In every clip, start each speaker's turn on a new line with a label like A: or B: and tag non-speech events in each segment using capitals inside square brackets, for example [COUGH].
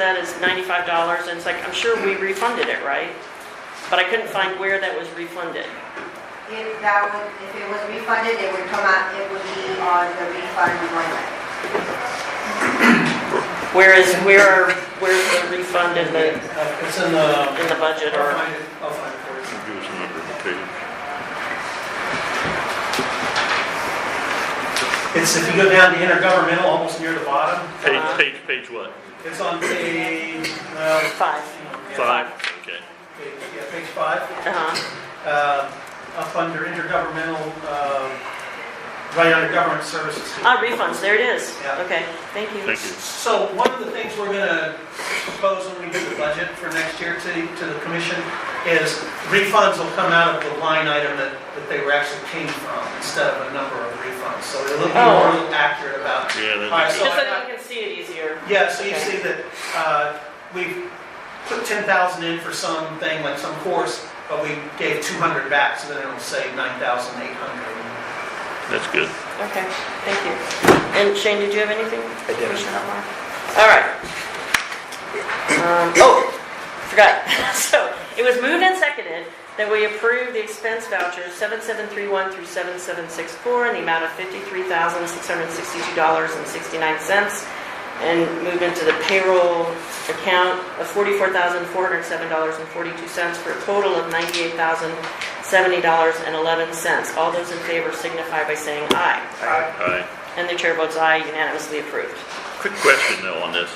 A: that is ninety-five dollars, and it's like, I'm sure we refunded it, right? But I couldn't find where that was refunded.
B: If that would, if it was refunded, it would come out, it would be on the refund line.
A: Where is, where are, where's the refund in the,
C: Uh, It's in the, uh,
A: in the budget or?
C: I'll find it, I'll find it for you.
D: Give
C: It's
D: us a number of the page.
C: if you go down to intergovernmental, almost near the bottom.
A: Uh-huh.
D: Page, page, page what?
C: It's on page, well,
A: Five.
C: yeah,
D: Five? Okay.
C: page- Yeah, page five.
A: Uh-huh,
C: uh, up under intergovernmental, uh, right under government services.
A: ah, refunds, there it is.
C: Yeah.
A: Okay, thank you.
D: Thank you.
C: So one of the things we're going to propose when we do the budget for next year to, to the commission is refunds will come out of the line item that, that they were actually paid from instead of a number of refunds. So it'll be
A: Oh.
C: more accurate about.
D: Yeah,
C: All
D: that-
C: right, so
A: Just so
C: I
A: that you can see it easier.
C: Yeah, so you
A: Okay.
C: see that uh, we put 10,000 in for something, like some course, but we gave 200 back, so then it'll say 9,800.
D: that's good.
A: Okay, thank you. And Shane, did you have anything?
E: I didn't.
A: Commissioner Hotmire? All right. Um, Oh, forgot. [LAUGHS] So it was moved and seconded that we approve the expense vouchers 7731 through 7764 in the amount of $53,662.69 and moved into the payroll account of $44,407.42 for a total of $98,070.11. All those in favor signify by saying aye.
D: All right.
A: And the chair votes aye, unanimously approved.
D: Quick question though on this.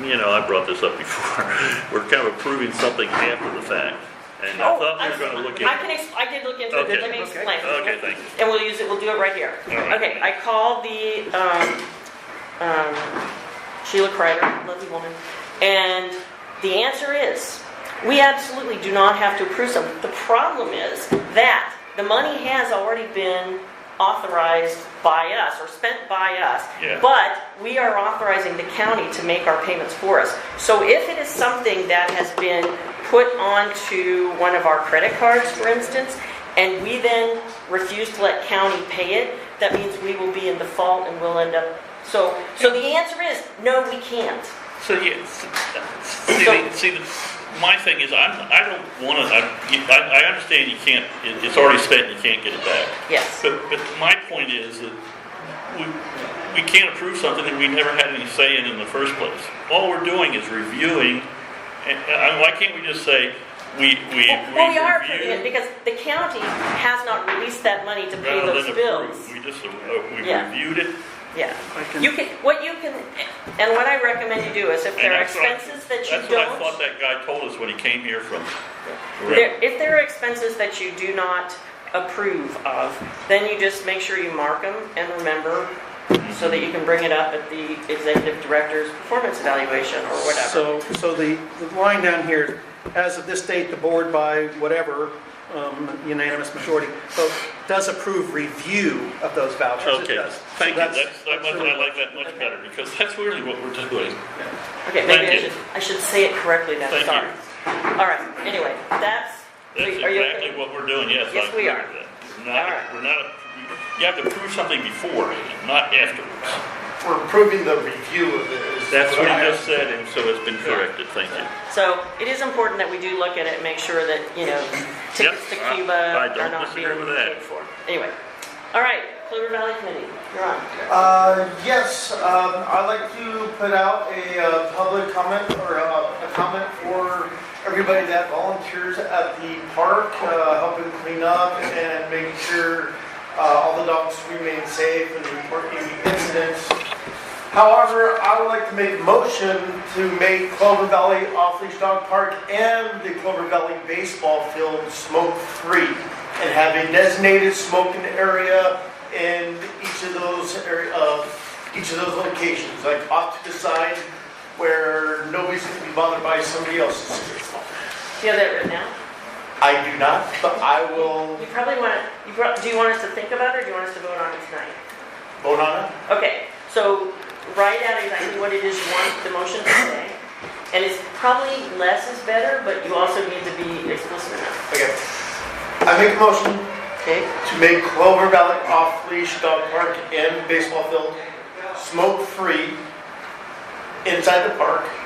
D: You know, I brought this up before. [LAUGHS] We're kind of approving something after the fact. And I thought we were gonna look
A: Oh, I
D: at.
A: can, ex- I did look into it,
D: Okay.
A: let me explain.
D: Okay, thank you.
A: And we'll use it, we'll do it right here.
D: All right.
A: Okay, I called the, um, um, Sheila Kreider, lovely woman, and the answer is, we absolutely do not have to approve some. The problem is that the money has already been authorized by us, or spent by us.
D: Yeah.
A: But we are authorizing the county to make our payments for us. So if it is something that has been put onto one of our credit cards, for instance, and we then refuse to let county pay it, that means we will be in default and we'll end up, so, so the answer is, no, we can't.
D: So, yeah, s- see, the- see, the- my thing is, I'm, I don't wanna, I, I- I understand you can't, it- it's already spent, you can't get it back.
A: Yes,
D: But, but my point is that we, we can't approve something that we never had any say in in the first place. All we're doing is reviewing, and, and why can't we just say, we, we,
A: well, we are approving it
D: review?
A: because the county has not released that money to pay
D: rather
A: those
D: than
A: bills.
D: approve? We just, uh, we
A: Yeah.
D: reviewed it,
A: Yeah, you can, what you can, and what I recommend you do is if there are
D: And that's what I-
A: expenses that you
D: that's what I
A: don't,
D: thought that guy told us when he came here from.
A: there- if there are expenses that you do not approve of, then you just make sure you mark them and remember so that you can bring it up at the executive director's performance evaluation or whatever.
E: So, so the, the line down here, as of this date, the board by whatever um, unanimous majority vote does approve review of those vouchers. It
D: Okay,
E: does. So
D: thank you, that's, that much,
E: absolutely-
D: I like that much better, because that's really what we're doing.
A: Okay, maybe I
D: thank you.
A: should, I should say it correctly then,
D: Thank you.
A: sorry. All right, anyway, that's,
D: That's
A: are you okay?
D: exactly what we're doing, yes. I
A: Yes, we
D: agree
A: are. All
D: with that.
A: right.
D: Not, we're not, you have to prove something before, not afterwards.
F: We're approving the review of this.
D: That's what
F: I
D: he just said, and so it's been corrected, thank you.
A: So it is important that we do look at it and make sure that, you know, tickets to
D: Yep, I-
A: Cuba
D: I
A: are
D: don't
A: not being
D: disagree with that.
A: paid for. Anyway, all right, Clover Valley Committee, you're on.
F: Uh, yes, um, I'd like to put out a uh, public comment or uh, a comment for everybody that volunteers at the park, uh, helping clean up and making sure uh, all the dogs remain safe and reporting incidents. However, I would like to make a motion to make Clover Valley Off-Leash Dog Park and the Clover Valley Baseball Field smoke-free and have a designated smoking area in each of those area, uh, each of those locations, like off to the side where nobody's gonna be bothered by somebody else's cigarette smoke.
A: Do you have that written down?
F: I do not, but I will
A: You probably want to, you prob- do you want us to think about it or do you want us to vote on it tonight?
F: vote on it.
A: Okay, so write out exactly what it is you want the motion to say. And it's probably less is better, but you also need to be explicit enough.
F: Okay. I make a motion
A: Okay?
F: to make Clover Valley off-leash dog park and baseball field smoke-free inside the park